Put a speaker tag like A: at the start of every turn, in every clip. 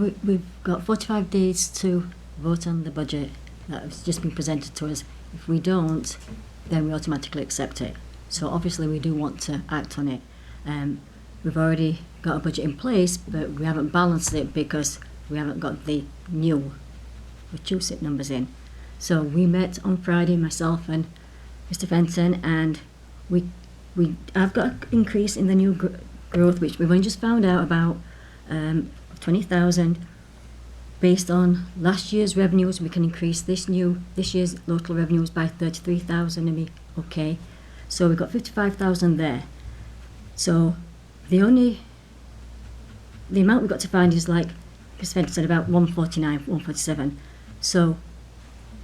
A: We- We've got 45 days to vote on the budget that's just been presented to us. If we don't, then we automatically accept it. So obviously, we do want to act on it. Um, We've already got a budget in place, but we haven't balanced it because we haven't got the new Wachusett numbers in. So we met on Friday, myself and Mr Fenton, and we, we, I've got an increase in the new gr- growth, which we've only just found out about, um, of 20,000. Based on last year's revenues, we can increase this new, this year's local revenues by 33,000 and be okay. So we've got 55,000 there. So the only, the amount we've got to find is like, because Fenton said about 149, 147. So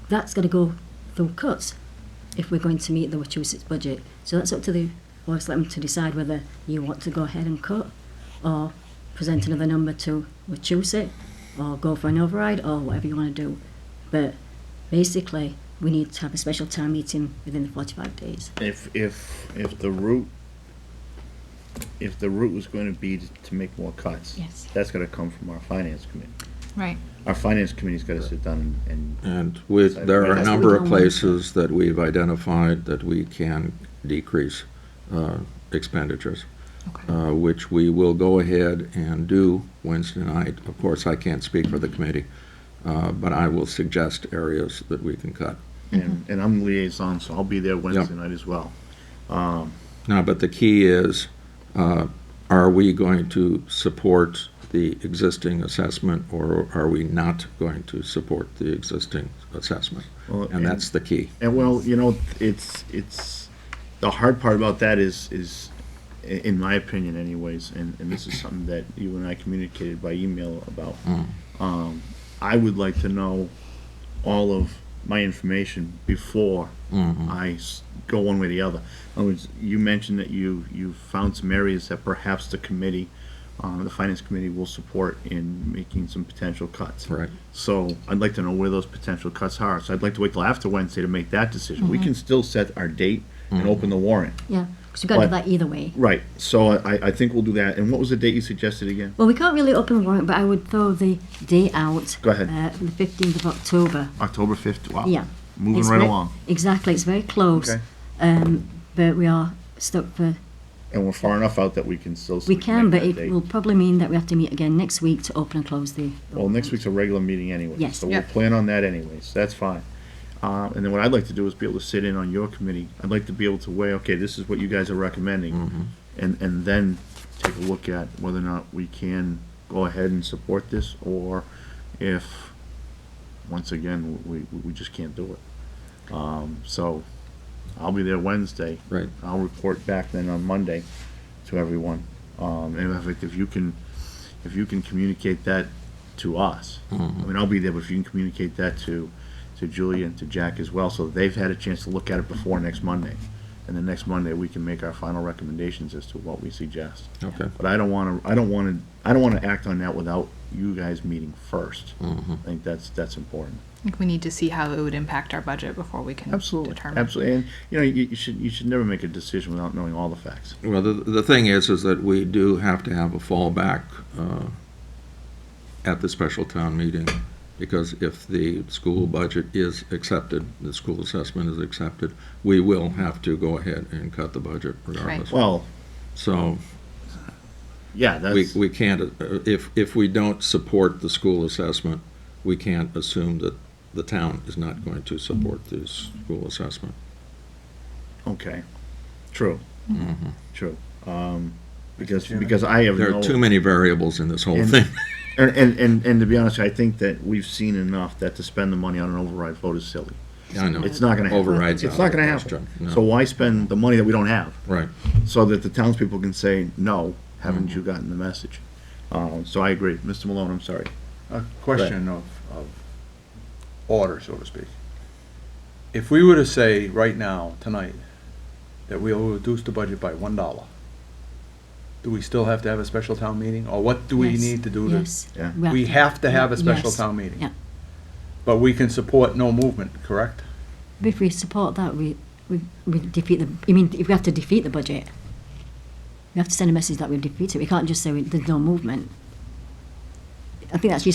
A: that's going to go through cuts if we're going to meet the Wachusett's budget. So that's up to the Board of Selectmen to decide whether you want to go ahead and cut or present another number to Wachusett or go for an override or whatever you want to do. But basically, we need to have a special town meeting within the 45 days.
B: If, if, if the route, if the route was going to be to- to make more cuts.
A: Yes.
B: That's gonna come from our finance committee.
C: Right.
B: Our finance committee's gotta sit down and, and
D: And with, there are a
B: Because we
D: number of
A: don't want-
D: places that we've identified that we can decrease uh, expenditures,
C: Okay.
D: uh, which we will go ahead and do Wednesday night. Of course, I can't speak for the committee, uh, but I will suggest areas that we can cut.
B: and, and I'm liaison, so I'll be there Wednesday night as well.
D: Now, but the key is, uh, are we going to support the existing assessment, or are we not going to support the existing assessment?
B: Well, and-
D: And that's the key.
B: And well, you know, it's, it's, the hard part about that is, is, i- in my opinion anyways, and, and this is something that you and I communicated by email about. Um, I would like to know all of my information before I s- go one way or the other. In other words, you mentioned that you, you found some areas that perhaps the committee, uh, the finance committee will support in making some potential cuts.
D: Right.
B: So I'd like to know where those potential cuts are. So I'd like to wait till after Wednesday to make that decision.
A: Mm-hmm.
B: We can still set our date and open the warrant.
A: Yeah, because we've got to do
B: But-
A: that either way.
B: Right, so I, I think we'll do that. And what was the date you suggested again?
A: Well, we can't really open the warrant, but I would throw the date out.
B: Go ahead.
A: Uh, the 15th of October.
B: October fifth, wow.
A: Yeah.
B: Moving
A: It's
B: right
A: ve-
B: along.
A: Exactly, it's very close.
B: Okay.
A: Um, but we are stuck for
B: And we're far enough out that we can still.
A: We can,
B: make
A: but
B: that
A: it
B: date.
A: will probably mean that we have to meet again next week to open and close the.
B: Well, next week's a regular meeting anyway.
A: Yes.
B: So we'll
C: Yep.
B: plan on that anyways, that's fine. Uh, and then what I'd like to do is be able to sit in on your committee. I'd like to be able to weigh, okay, this is what you guys are recommending. And, and then take a look at whether or not we can go ahead and support this, or if, once again, we, we- we just can't do it. Um, so, I'll be there Wednesday.
D: Right.
B: I'll report back then on Monday to everyone. Um, and if, if you can, if you can communicate that to us,
D: Mm-hmm.
B: I mean, I'll be there, but if you can communicate that to, to Julie and to Jack as well, so they've had a chance to look at it before next Monday. And then next Monday, we can make our final recommendations as to what we suggest.
D: Okay.
B: But I don't wanna, I don't wanna, I don't wanna act on that without you guys meeting first.
D: Mm-hmm.
B: I think that's, that's important.
C: I think we need to see how it would impact our budget before we can
B: Absolutely,
C: determine.
B: absolutely. And, you know, you, you should, you should never make a decision without knowing all the facts.
D: Well, the, the thing is, is that we do have to have a fallback uh, at the special town meeting, because if the school budget is accepted, the school assessment is accepted, we will have to go ahead and cut the budget regardless.
B: Well,
D: So
B: yeah,
D: we,
B: that's,
D: we can't, uh, if, if we don't support the school assessment, we can't assume that the town is not going to support the school assessment.
B: okay, true, true. Um, because, because I have
D: Mm-hmm. There
B: no.
D: are too many variables in this whole
B: And-
D: thing.
B: And, and, and, and to be honest, I think that we've seen enough that to spend the money on an override vote is silly.
D: I know.
B: It's not gonna happen.
D: Overrides
B: It's
D: out
B: not
D: of the
B: gonna
D: question.
B: happen.
D: No.
B: So why spend the money that we don't have?
D: Right. Mm-hmm.
B: So that the townspeople can say, no, haven't you gotten the message? Um, so I agree. Mr. Malone, I'm sorry.
E: a question of, of order, so to speak. If we were to say right now, tonight, that we will reduce the budget by one dollar, do we still have to have a special town meeting, or what do we
A: Yes,
E: need to do
A: Yes.
E: to?
B: Yeah.
E: We
A: to-
E: have to have a special
A: yes,
E: town meeting,
A: Yeah,
E: but we can support no movement, correct?
A: But if we support that, we, we, we defeat the, you mean, if we have to defeat the budget, we have to send a message that we've defeated, we can't just say we- there's no movement. I think that's your